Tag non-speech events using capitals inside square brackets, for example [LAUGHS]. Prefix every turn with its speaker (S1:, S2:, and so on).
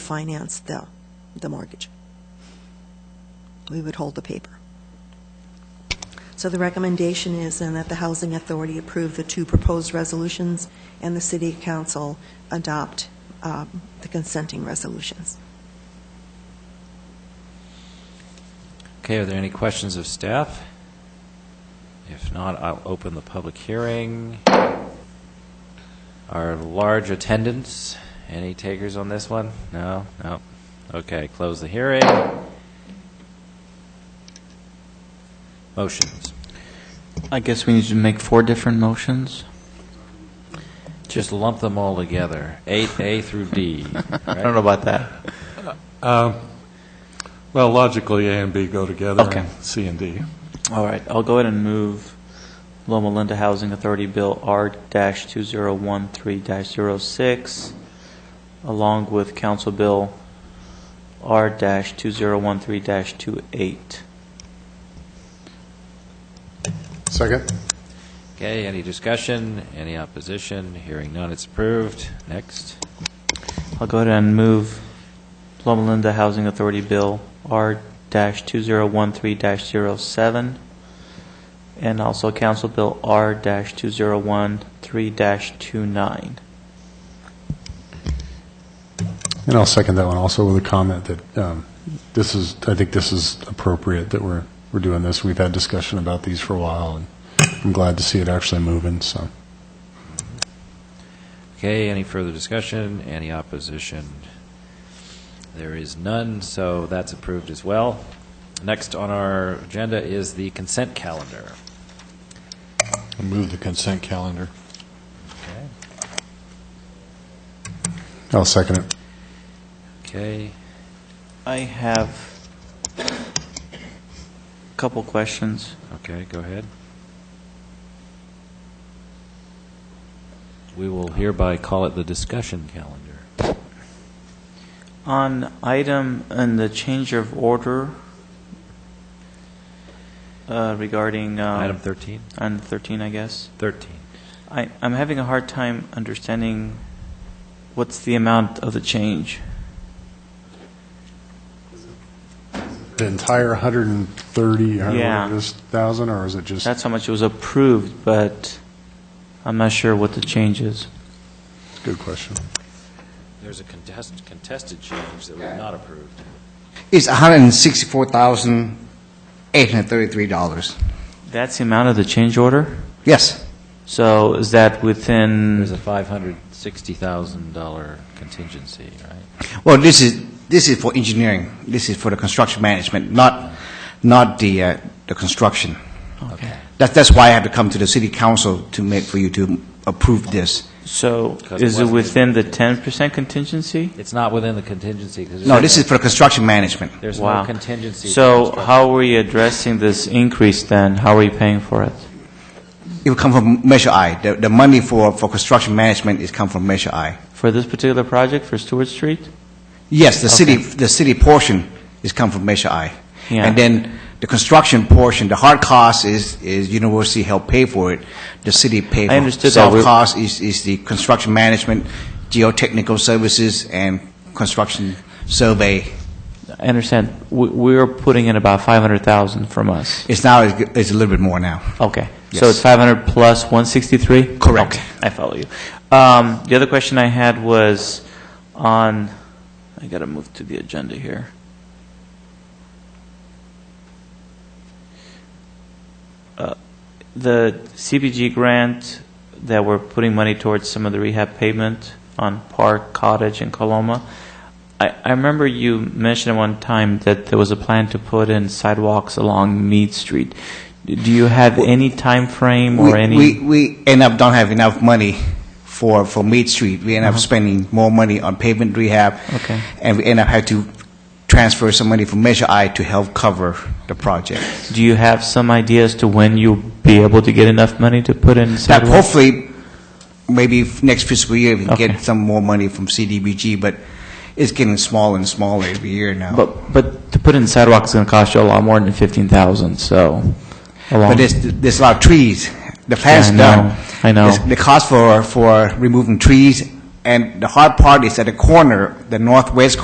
S1: finance the, the mortgage. We would hold the paper. So the recommendation is then that the Housing Authority approve the two proposed resolutions and the City Council adopt um, the consenting resolutions.
S2: Okay, are there any questions of staff? If not, I'll open the public hearing. Our large attendance, any takers on this one? No, no. Okay, close the hearing. Motions.
S3: I guess we need to make four different motions.
S2: Just lump them all together, 8A through
S3: [LAUGHS]
S2: D.
S3: I don't know about that.
S4: Well, logically, A and B go together.
S3: Okay.
S4: and C and D.
S3: All right, I'll go ahead and move Loma Linda Housing Authority Bill R-2013-06, along with Council Bill R-2013-28.
S5: Second.
S2: Okay, any discussion, any opposition? Hearing none, it's approved. Next.
S3: I'll go ahead and move Loma Linda Housing Authority Bill R-2013-07, and also Council Bill R-2013-29.
S5: And I'll second that one also with a comment that um, this is, I think this is appropriate that we're, we're doing this. We've had discussion about these for a while, and I'm glad to see it actually moving, so.
S2: Okay, any further discussion? Any opposition? There is none, so that's approved as well. Next on our agenda is the consent calendar.
S6: Move the consent calendar.
S5: I'll second it.
S2: Okay,
S3: I have a couple questions.
S2: okay, go ahead. We will hereby call it the discussion calendar.
S3: On item and the change of order uh, regarding... um,
S2: Item 13?
S3: On 13, I guess.
S2: 13.
S3: I, I'm having a hard time understanding what's the amount of the change.
S5: The entire 130,
S3: Yeah.
S5: 100,000, or is it just?
S3: That's how much it was approved, but I'm not sure what the change is.
S5: Good question.
S2: There's a contest- contested change that we've not approved.
S7: It's $164,833.
S3: That's the amount of the change order?
S7: Yes,
S3: So is that
S7: Mm.
S3: within...
S2: There's a $560,000 contingency, right?
S7: well, this is, this is for engineering, this is for the construction management, not, not the, uh, the construction.
S3: Okay.
S7: That, that's why I have to come to the city council to make, for you to approve this.
S3: So
S2: Because it
S3: is it
S2: wasn't-
S3: within the 10% contingency?
S2: It's not within the contingency because...
S7: No, this is for the construction management.
S2: There's
S3: Wow.
S2: no contingency.
S3: So
S2: construct-
S3: how are we addressing this increase then? How are we paying for it?
S7: It will come from Measure I. The, the money for, for construction management is come from Measure I.
S3: For this particular project, for Stewart Street?
S7: Yes, the city, the city portion is come from Measure I.
S3: Yeah.
S7: And then the construction portion, the hard cost is, is university help pay for it, the city pay for it.
S3: understood that.
S7: Soft
S3: We're-
S7: cost is, is the construction management, geotechnical services, and construction survey.
S3: I understand, we, we're putting in about 500,000 from us.
S7: It's now, it's a little bit more now.
S3: Okay, so
S7: Yes.
S3: it's 500 plus 163?
S7: Correct.
S3: I follow you. Um, The other question I had was on, I got to move to the agenda here. Uh, The CBG grant that we're putting money towards some of the rehab pavement on Park Cottage in Coloma, I, I remember you mentioned one time that there was a plan to put in sidewalks along Mead Street. Do you have any time frame or
S7: We-
S3: any?
S7: We, we end up don't have enough money for, for Mead Street. We end up spending more money on pavement rehab.
S3: Uh-huh. Okay.
S7: And we end up having to transfer some money from Measure I to help cover the project.
S3: Do you have some idea as to when you'll be able to get enough money to put in
S7: That
S3: sidewalks?
S7: hopefully, maybe f- next fiscal year, we can
S3: Okay.
S7: get some more money from CDBG, but it's getting smaller and smaller every year now.
S3: But, but to put in sidewalks is going to cost you a lot more than 15,000, so.
S7: But there's, there's a lot of trees. The plan's
S3: I know.
S7: done.
S3: I know.
S7: It's- The cost for, for removing trees, and the hard part is at the corner, the northwest